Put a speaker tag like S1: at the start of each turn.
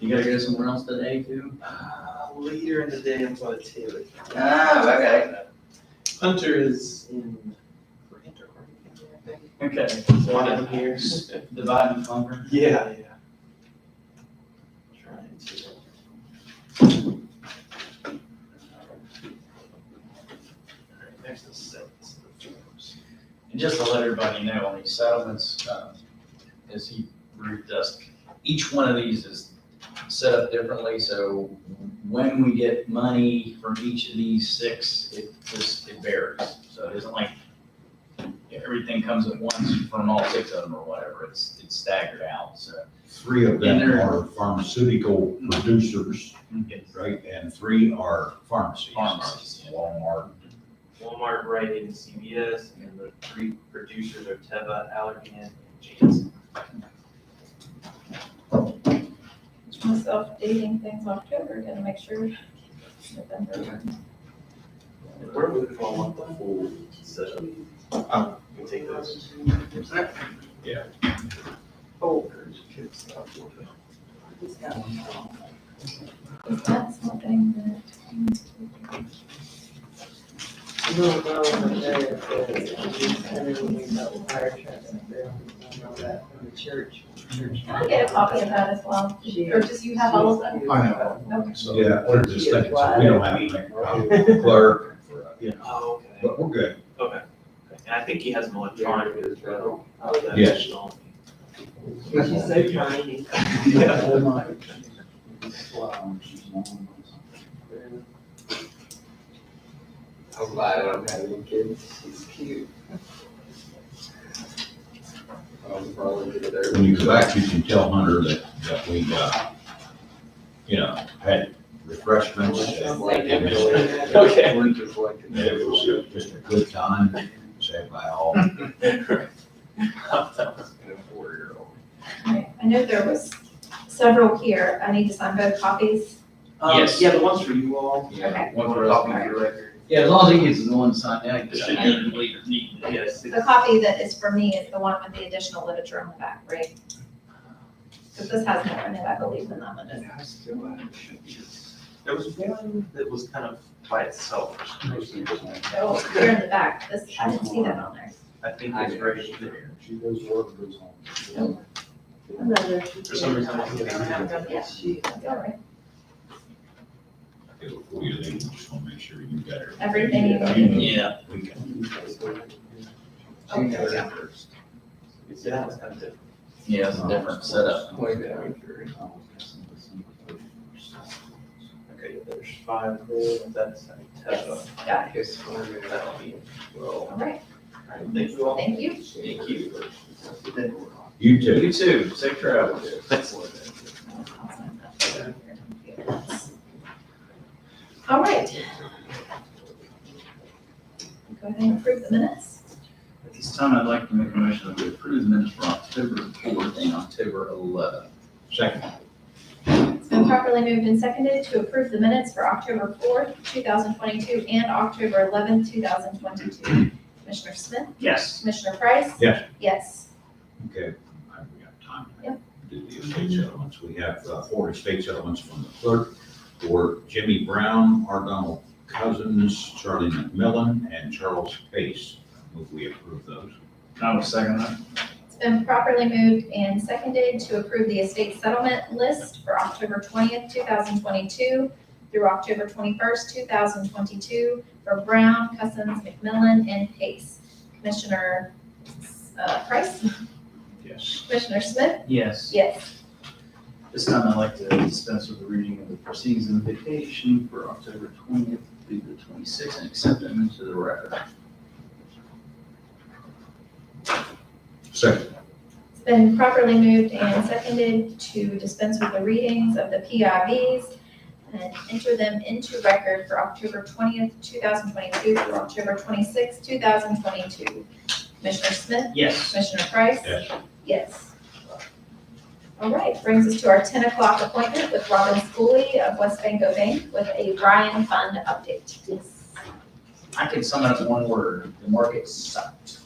S1: You gotta go somewhere else today too?
S2: Uh, later in the day, I'm going to Taylor.
S1: Ah, okay.
S2: Hunter is in. for intercourse, I think.
S1: Okay.
S2: So One of them here.
S1: Divide and conquer.
S2: Yeah, yeah. Trying to. Alright, There's the settlements. the forms.
S1: And just to let everybody know, on these settlements, um, as he briefed us, each one of these is set up differently, so when we get money from each of these six, it just, it varies. So it isn't like everything comes at once from all six of them or whatever, it's, it's staggered out, so.
S3: Three of
S1: And
S3: them
S1: they're-
S3: are pharmaceutical producers,
S1: it's
S3: right, and three are pharmacies.
S1: Pharmacies, yeah.
S3: Walmart,
S2: Walmart, Rite Aid, and CVS, and the three producers are Teva, Allergan, and Janssen.
S4: Just updating things October, gotta make sure. November.
S2: Where would we want the full setup?
S3: Oh.
S2: We'll take those.
S3: Yeah.
S2: Oh.
S4: That's something that needs to be.
S5: No, no, no, that from the church.
S4: Can I get a copy of that as well? Or just you have all of them?
S3: I know.
S4: Okay.
S3: so we're just thinking, so we don't have anything for clerk, for, you know,
S2: Oh, okay.
S3: but we're good.
S2: Okay. And I think he has Oh, an electronic as well.
S3: Yes.
S5: She's so tiny.
S2: Yeah.
S5: I'm glad I don't have any kids, she's cute. I'll probably get her.
S3: When you go back, you can tell Hunter that, that we, uh, you know, had refreshments and
S2: Okay.
S5: We're just like.
S3: and it was uh, just a good time, said by all.
S5: And a four-year-old.
S4: Alright, I know there was several here. I need to sign both copies.
S2: Um,
S1: Yes.
S2: Yeah, the ones for you all.
S4: Okay.
S1: One
S2: One
S1: for us.
S2: copy for your record.
S1: Yeah, as long as he gets the one signed out,
S2: It
S1: he
S2: should
S1: should
S2: be
S1: be leader.
S2: Yes.
S4: The copy that is for me is the one with the additional literature on the back, right? Because this has more in it, I believe, than that one does.
S2: There was one that was kind of by itself.
S4: Oh, here in the back, this, I didn't see that on there.
S2: I think it was very there.
S3: She goes work goes home.
S2: For some reason, I think it was-
S4: That's all right.
S3: Before you leave, we just wanna make sure you got her.
S4: Everything you
S3: Yeah,
S1: Yeah,
S3: we can-
S2: Yeah, that was kind of different.
S1: yeah, it's a different setup.
S2: Okay, there's five there, and that's a Teva.
S4: Yes, got it.
S2: That'll be it.
S4: All
S2: All
S4: right,
S2: right, thank you all.
S4: thank you.
S1: Thank you.
S3: You too.
S1: You too, safe travels.
S4: All right. Go ahead and approve the minutes.
S1: At this time, I'd like to make a motion that we approve the minutes for October fourth and October eleventh.
S3: Second,
S4: It's been properly moved and seconded to approve the minutes for October fourth, two thousand twenty-two, and October eleventh, two thousand twenty-two. Commissioner Smith,
S1: Yes.
S4: Commissioner Price?
S3: Yes.
S4: Yes.
S3: okay, I- we got time. to
S4: Yep.
S3: Do the estate settlements. We have uh, four estate settlements from the clerk for Jimmy Brown, Argyle Cousins, Charlie McMillan, and Charles Pace. Move we approve those.
S1: I will second that.
S4: It's been properly moved and seconded to approve the estate settlement list for October twentieth, two thousand twenty-two through October twenty-first, two thousand twenty-two for Brown, Cousins, McMillan, and Pace. Commissioner, uh, Price,
S3: Yes.
S4: Commissioner Smith?
S1: Yes.
S4: Yes.
S1: This time, I'd like to dispense with the reading of the proceedings of the vacation for October twentieth through the twenty-sixth and accept them into the record.
S3: Second,
S4: It's been properly moved and seconded to dispense with the readings of the PIVs and enter them into record for October twentieth, two thousand twenty-two through October twenty-sixth, two thousand twenty-two. Commissioner Smith?
S1: Yes.
S4: Commissioner Price?
S3: yes.
S4: Yes. All right, brings us to our ten o'clock appointment with Robin Schooley of West Banko Bank with a Ryan Fund update.
S1: I can sum it up in one word, the market sucked.